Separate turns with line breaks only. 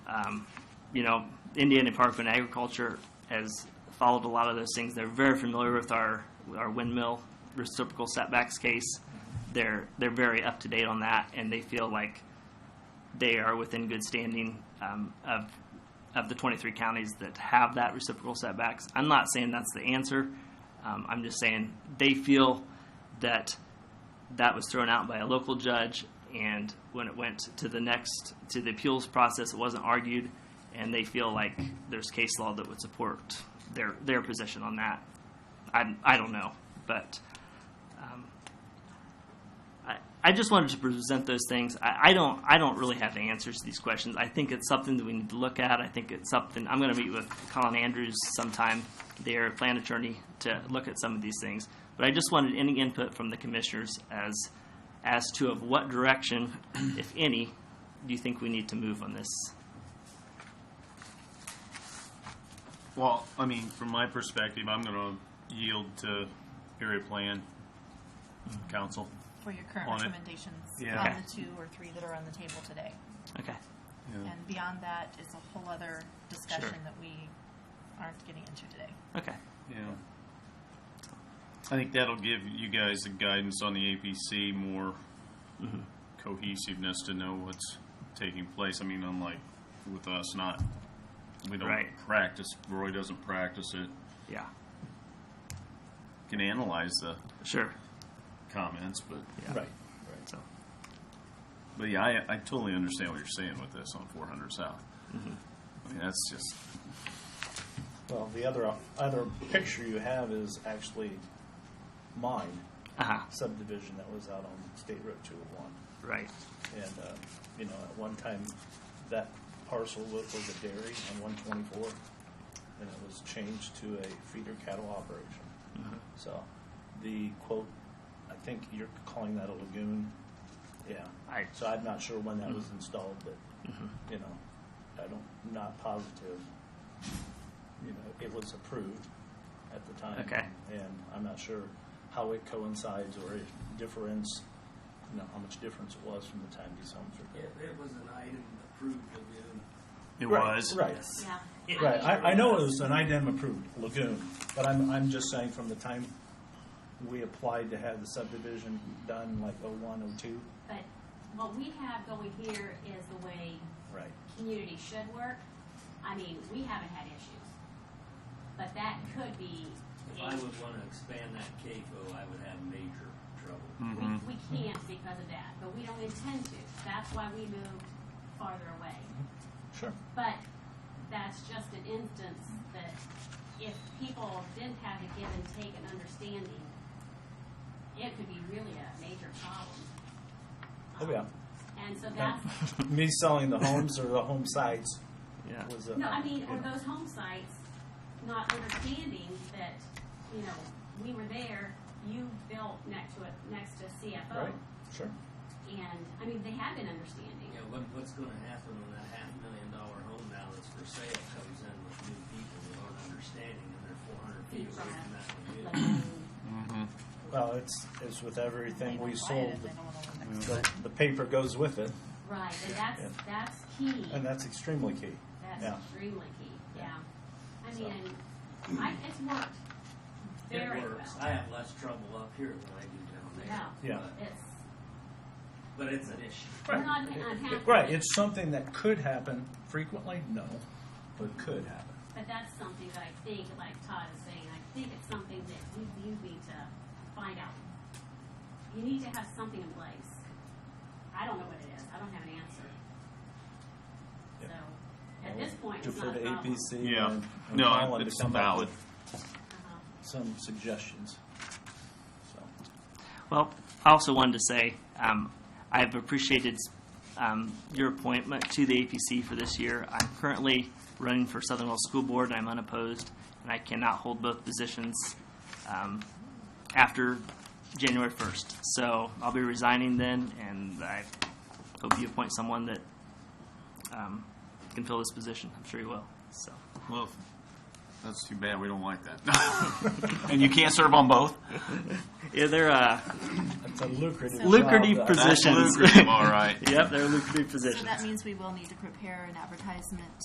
Um, you know, Indiana Department of Agriculture has followed a lot of those things. They're very familiar with our, our windmill reciprocal setbacks case. They're, they're very up to date on that, and they feel like they are within good standing um, of, of the 23 counties that have that reciprocal setbacks. I'm not saying that's the answer. Um, I'm just saying they feel that that was thrown out by a local judge, and when it went to the next to the appeals process, it wasn't argued, and they feel like there's case law that would support their their position on that. I I don't know, but um, I I just wanted to present those things. I, I don't I don't really have the answers to these questions. I think it's something that we need to look at. I think it's something I'm going to meet with Colin Andrews sometime, their plan attorney, to look at some of these things. But I just wanted any input from the commissioners as as to of what direction, if any, do you think we need to move on this?
Well, I mean, from my perspective, I'm going to yield to area plan council.
for your current
on it.
recommendations
Yeah.
on
Okay.
the two or three that are on the table today.
Okay.
And beyond that is a whole other discussion that we aren't getting into today.
Okay.
Yeah. I think that'll give you guys the guidance on the APC, more
Mm-hmm.
cohesiveness to know what's taking place. I mean, unlike with us, not, we don't
Right.
practice, Roy doesn't practice it,
Yeah.
can analyze the
Sure.
comments, but,
Yeah.
Right.
So
but yeah, I, I totally understand what you're saying with this on 400 South. I mean, that's just,
Mm-hmm. Well, the other other picture you have is actually mine
uh-huh.
subdivision that was out on State Road 201,
right.
and uh, you know at one time that parcel was, was a dairy on 124, and it was changed to a feeder cattle operation.
Mm-hmm.
So the quote, I think you're calling that a lagoon. Yeah.
I- Mm-hmm.
so I'm not sure when that was installed, but you know, I don't not positive. You know, it was approved at the time.
Okay.
And I'm not sure how it coincides or if difference, you know, how much difference it was from the time these homes were
It,
built.
it was an item approved lagoon.
it
Right,
was.
Right.
Yeah.
Right, I, I know it was an IDEM approved lagoon, but I'm, I'm just saying from the time we applied to have the subdivision done, like oh one, oh two.
But what we have going here is the way
Right.
community should work. I mean, we haven't had issues. But that could be,
If I
a-
would want to expand that CAFO, I would have major trouble.
we, we can't because of that, but we don't intend to. That's why we moved farther away.
Sure.
But that's just an instance that if people didn't have a give and take and understanding, it could be really a major problem.
Oh, yeah.
And so that's,
Me selling the homes or the home sites
Yeah.
was a.
No, I mean, or
you know,
those home sites, not understanding that, you know, we were there, you built next to it, next to CFO.
Right, sure.
And, I mean, they have been understanding.
You know, what, what's going to happen when that half million dollar home now that's for sale comes in with new people who aren't understanding and they're four hundred feet away from that
But,
lagoon?
um,
Well, it's, it's with everything we sold,
They don't want to live next to
the, the paper goes with it,
Right, and that's, that's key.
and that's extremely key.
That's
Yeah.
extremely key, yeah. I
So.
mean, I, it's worked very
It
well.
works. I have less trouble up here than I do down there.
Yeah.
but-
It's,
But it's an issue.
we're not uh, unhappy.
Right, it's something that could happen frequently, no, but could happen.
But that's something that I think, like Todd is saying, I think it's something that you, you need to find out. You need to have something in place. I don't know what it is. I don't have an answer.
Yeah.
So, at this point, it's
Defer
not a
to
problem.
APC.
Yeah.
and- and
No,
Colin to
it's
come up
valid.
with
Uh-huh.
Some suggestions, so.
Well, I also wanted to say, um, I've appreciated um, your appointment to the APC for this year. I'm currently running for Southern Wells School Board, and I'm unopposed, and I cannot hold both positions um, after January 1st. So I'll be resigning then, and I hope you appoint someone that um, can fill this position. I'm sure you will, so.
Well, That's too bad. We don't like that. and you can't serve on both.
Yeah, they're uh,
It's a lucrative job.
lucrative
that-
positions.
That's lucrative, all right.
yep, they're lucrative
So
positions.
that means we will need to prepare an advertisement